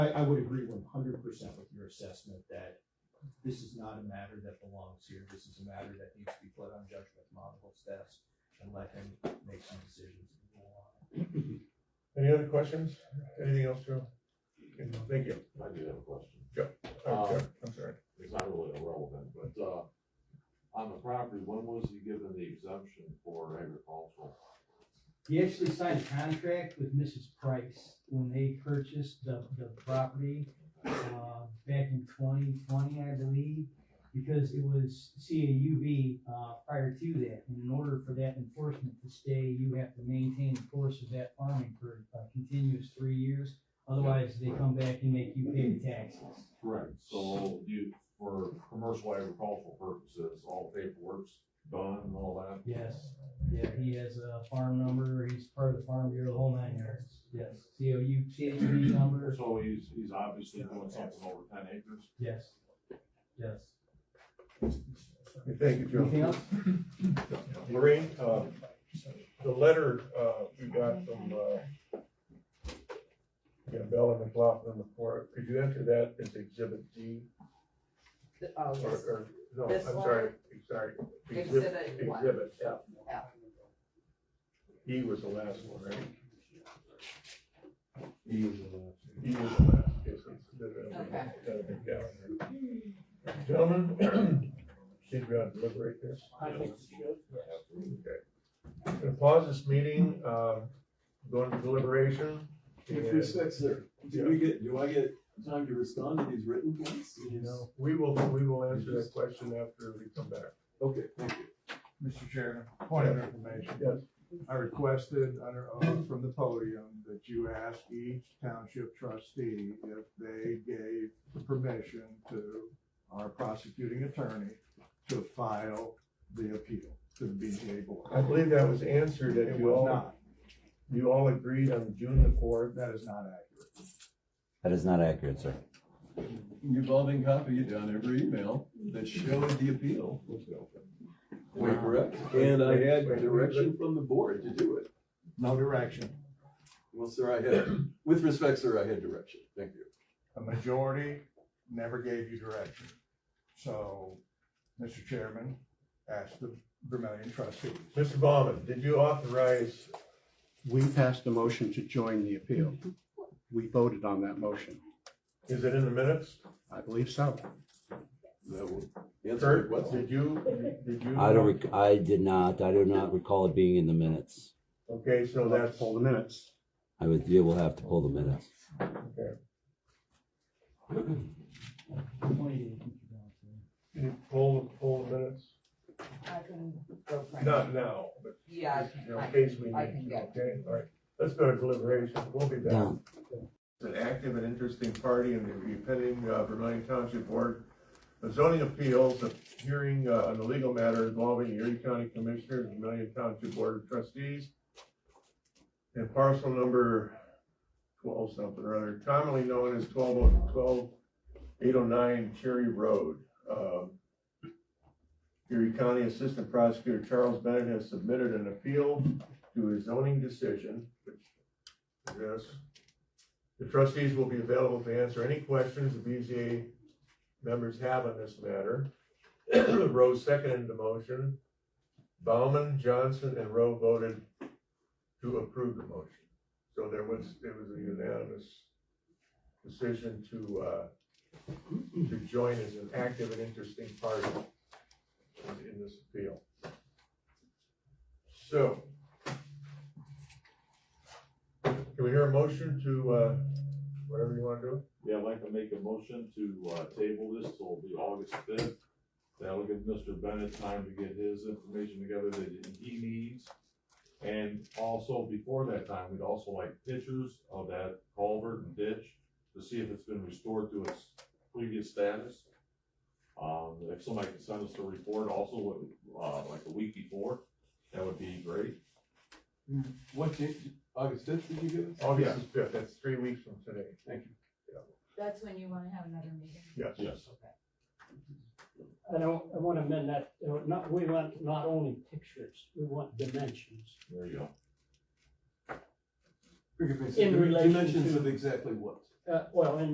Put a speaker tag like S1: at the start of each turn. S1: I, I would agree one hundred percent with your assessment that this is not a matter that belongs here. This is a matter that needs to be put on Judge McMonagle's desk and let him make some decisions. and go on.
S2: Any other questions? Anything else, Joe? Okay, Thank you.
S3: I do have a question.
S2: Oh,
S3: Um,
S2: Joe, I'm sorry.
S3: It's not really irrelevant, but, uh, on the property, when was he given the exemption for agricultural?
S4: He actually signed a contract with Mrs. Price when they purchased the, the property, uh, back in twenty twenty, I believe, because it was CAUV, uh, prior to that. And in order for that enforcement to stay, you have to maintain the course of that farming for a continuous three years. Otherwise, they come back and make you pay the taxes.
S3: Correct. So you, for commercial agricultural purposes, all paperwork's done and all that?
S4: Yes, yeah, he has a farm number, he's part of the farm bureau, the whole nine yards, yes. COU, CAUV number,
S3: So he's, he's obviously doing something over ten acres?
S4: yes, yes.
S2: Okay, Thank you,
S4: Anything
S2: Joe.
S4: else?
S2: Lorraine, uh, the letter, uh, we got from, uh, yeah, Bell and McLaughlin before, could you enter that as exhibit D?
S5: Th- Oh,
S2: Or,
S5: yes,
S2: or, no, I'm
S5: This one?
S2: sorry, sorry. Exhibit,
S5: exhibit one.
S2: exhibit F.
S5: Yeah.
S2: E was the last one, right?
S3: He is allowed.
S2: E was the last, yes, exhibit.
S5: Okay.
S2: That'll be down there. Gentlemen, should we ought to deliberate this? Okay. I'm gonna pause this meeting, uh, go into deliberation.
S6: If we
S2: and
S6: six there, do we get, do I get time to respond to these written points?
S2: We will, we will answer that question after we come back.
S6: Okay, thank you.
S7: Mr. Chairman, point of information.
S2: Yes.
S7: I requested under oath from the podium that you ask each township trustee if they gave permission to our prosecuting attorney to file the appeal to the BJ
S2: I
S7: board.
S2: believe that was answered that
S7: It
S2: you
S7: was
S2: all,
S7: not,
S2: you all agreed on June the fourth.
S7: that is not accurate.
S8: That is not accurate, sir.
S6: Revolving copy on every email that showed the appeal. Wait, correct? And I had direction from the board to do it.
S7: No direction.
S6: Well, sir, I had, with respect, sir, I had direction. Thank you.
S7: A majority never gave you direction. So, Mr. Chairman, ask the Vermillion trustees.
S2: Mr. Bauman, did you authorize,
S9: We passed a motion to join the appeal. We voted on that motion.
S2: is it in the minutes?
S9: I believe so.
S6: That will answer your
S2: Kurt,
S6: question.
S2: did you, did you?
S8: I don't, rec- I did not, I do not recall it being in the minutes.
S2: Okay, so
S9: We'll have
S2: that's,
S9: to pull the minutes.
S8: I would, you will have to pull the minutes.
S4: Twenty days.
S2: can you pull, pull the minutes?
S5: I can go find it.
S2: Not now, but
S5: Yeah, I can-
S2: you know,
S5: I
S2: in
S5: can,
S2: case we
S5: I
S2: need
S5: can
S2: to,
S5: get.
S2: okay? All right, let's go to deliberation, we'll be back.
S8: Down.
S2: an active and interesting party in the pending uh, Vermillion Township Board of Zoning Appeals, a hearing uh, on a legal matter involving the Erie County Commissioner, and Vermillion Township Board of Trustees, and parcel number twelve something or other, commonly known as oh, 12 12809 Cherry Road. Um, Erie County Assistant Prosecutor Charles Bennett has submitted an appeal to his zoning decision, which, yes, the trustees will be available to answer any questions the BZA members have on this matter. Rose seconded the motion. Bauman, Johnson, and Rowe voted to approve the motion. So there was, it was a unanimous decision to, uh, to join as an active and interesting party in- in this appeal. So, can we hear a motion to, uh, whatever you want to do?
S3: Yeah, I'd like to make a motion to, uh, table this till the August fifth. That'll give Mr. Bennett time to get his information together that he needs. And also before that time, we'd also like pictures of that culvert and ditch to see if it's been restored to its previous status. Um, if somebody can send us a report also, uh, like a week before, that would be great.
S6: What date, August fifth did you give us?
S2: August is fifth, that's three weeks from today.
S5: That's when you wanna have another meeting?
S2: Yes.
S3: Yes.
S10: And I, I want to amend that, uh, not, we want not only pictures, we want dimensions.
S3: There you go.
S10: In relation
S6: Dimensions
S10: to-
S6: of exactly what?
S10: Uh, well, in